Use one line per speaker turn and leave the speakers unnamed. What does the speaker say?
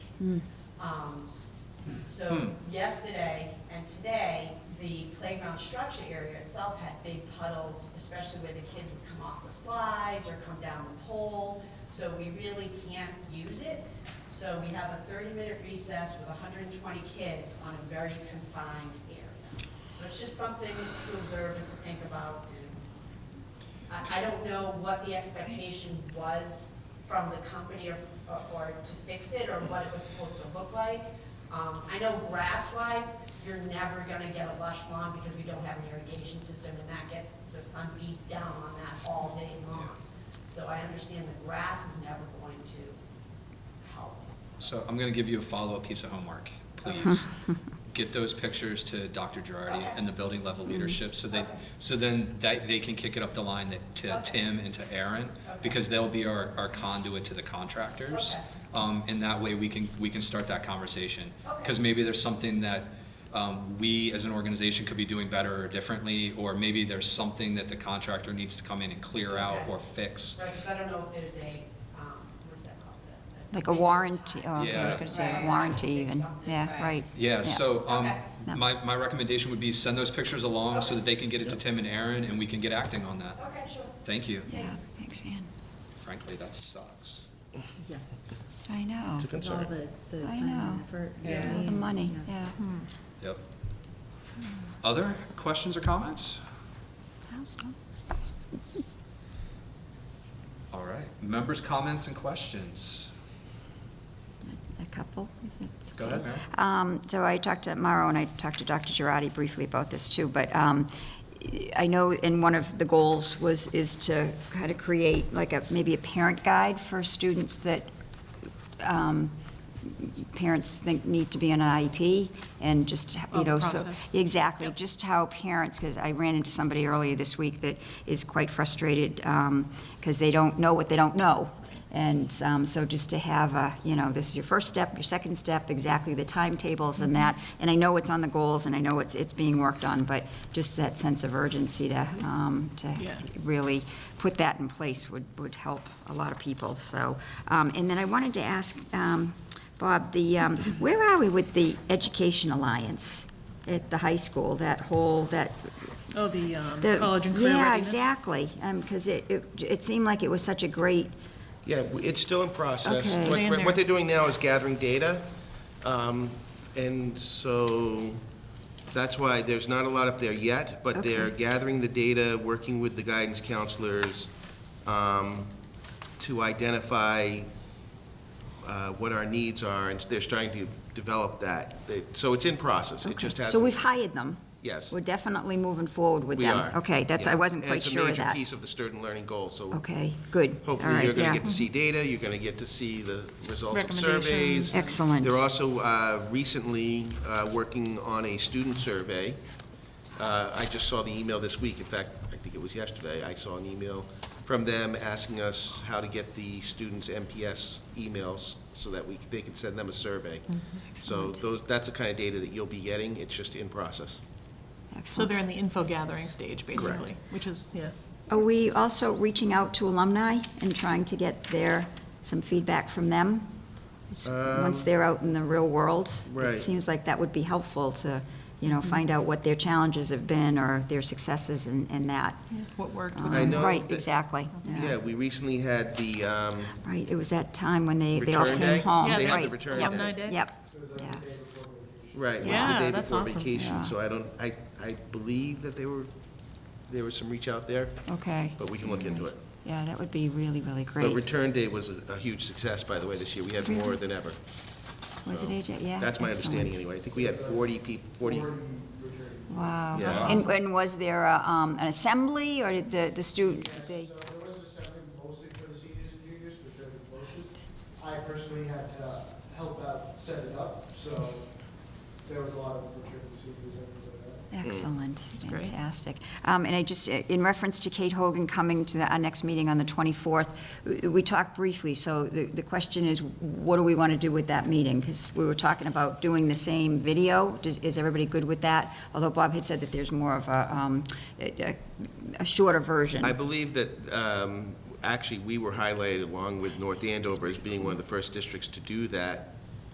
Um, So yesterday and today, the playground structure area itself had big puddles, especially where the kids would come off the slides or come down the pole, so we really can't use it. So we have a 30-minute recess with 120 kids on a very confined area. So it's just something to observe and to think about. And I, I don't know what the expectation was from the company or, or to fix it, or what it was supposed to look like. Um, I know grass-wise, you're never gonna get a lush lawn because we don't have an irrigation system, and that gets, the sun beats down on that all day long. So I understand the grass is never going to help.
So I'm going to give you a follow-up piece of homework, please. Get those pictures to Dr. Girardi
Okay. Mm-hmm.
and the building level leadership, so they,
Okay.
so then that, they can kick it up the line that- to
Okay.
Tim and to Aaron, because they'll be our our conduit to the contractors.
Okay.
Um, And that way, we can, we can start that conversation.
Okay.
Because maybe there's something that um, we, as an organization, could be doing better or differently, or maybe there's something that the contractor needs to come in and clear out
Okay.
or fix.
Right, because I don't know if there's a, um, what's that called? The- the-
Like a warranty, oh, okay, I was
Yeah.
gonna say,
Right.
a warranty even,
Something,
yeah,
right.
right.
Yeah, so, um,
Okay.
No.
my, my recommendation would be send those pictures along so that they can get it to Tim and Aaron and we can get acting on that.
Okay, sure.
Thank you.
Yeah, thanks, Ann.
Frankly, that sucks.
Yeah,
I know,
It's a
with all
concern.
the, the
I
time and
know.
effort.
Yeah.
all the money,
Yeah.
yeah. Hmm.
Yep. Other questions or comments?
How's it going?
All right, members' comments and questions.
A couple, if that's
Go
okay.
ahead, Mary.
Um, So I talked to Mauro, and I talked to Dr. Girardi briefly about this, too, but um, I know in one of the goals was, is to kind of create like a, maybe a parent guide for students that um, parents think need to be in an IEP, and just,
Oh,
you
the
know, so.
process.
Exactly, just how parents, because I ran into somebody earlier this week that is quite frustrated because they don't know what they don't know. And um, so just to have a, you know, this is your first step, your second step, exactly the timetables and that. And I know it's on the goals and I know it's, it's being worked on, but just that sense of urgency to, um, to
Yeah.
really put that in place would, would help a lot of people, so. um, And then I wanted to ask, um, Bob, the, um, where are we with the Education Alliance at the high school, that whole, that?
Oh, the um,
the-
college and career
Yeah,
readiness?
exactly, because it, it it seemed like it was such a great,
Yeah, w- it's still in process.
Okay.
What-
Land
What
there.
they're doing now is gathering data, um, and so that's why there's not a lot up there yet, but they're gathering the data, working with the guidance counselors um, to identify uh, what our needs are, and they're starting to develop that. They- So it's in process, it just hasn't.
so we've hired them.
Yes.
We're definitely moving forward with
We
them.
are.
Okay, that's, I
Yeah.
wasn't quite sure
And
of
it's a major
that.
piece of the Sturton Learning Goal, so
Okay, good, all
Hopefully, you're
right,
going to
yeah.
get to see data, you're going to get to see the results of surveys.
Recommendations.
Excellent.
They're also uh, recently uh, working on a student survey. Uh, I just saw the email this week, in fact, I think it was yesterday, I saw an email from them asking us how to get the students' MPS emails so that we, they can send them a survey.
Mm-hmm.
So those, that's the kind of data that you'll be getting, it's just in process.
So
Excellent.
they're in the info gathering stage, basically, which is, yeah.
Are we also reaching out to alumni and trying to get their, some feedback from them? Once they're out in the real world?
Um, right.
It seems like that would be helpful to, you know, find out what their challenges have been or their successes and, and that.
What worked
Um,
with
I know
Right,
that-
exactly.
Yeah, we recently had the, um,
Right, it was that time when they, they all
Return
came
day?
home.
Yeah,
they had the
right,
return
yep,
day. Alumni day?
Yep, yeah,
Right, it was
Yeah,
the day
that's
before
awesome.
vacation,
Yeah.
so I don't, I, I believe that they were, there was some reach out there,
okay.
but we can look into it.
Yeah, that would be really, really
But
great.
return day was a a huge success, by the way, this year, we had more than ever.
Was it
so
AJ? Yeah.
That's my
excellent.
understanding anyway, I think we had forty people, forty,
Wow.
Yeah. That's
Um, And, and was there a, um, an assembly or did the, the student, they?
So there was an assembly mostly for the seniors and juniors, because they're the closest. I personally had to help out set it up, so there was a lot of returning seniors and things like that.
Mm.
Excellent,
great.
fantastic. Um, And I just, uh, in reference to Kate Hogan coming to the- our next meeting on the 24th, w- we talked briefly, so the the question is, what do we want to do with that meeting? Because we were talking about doing the same video, Does- is everybody good with that? Although Bob had said that there's more of a, um, a- a- a shorter version.
I believe that, um, actually, we were highlighted along with North Andover as being one of the first districts to do that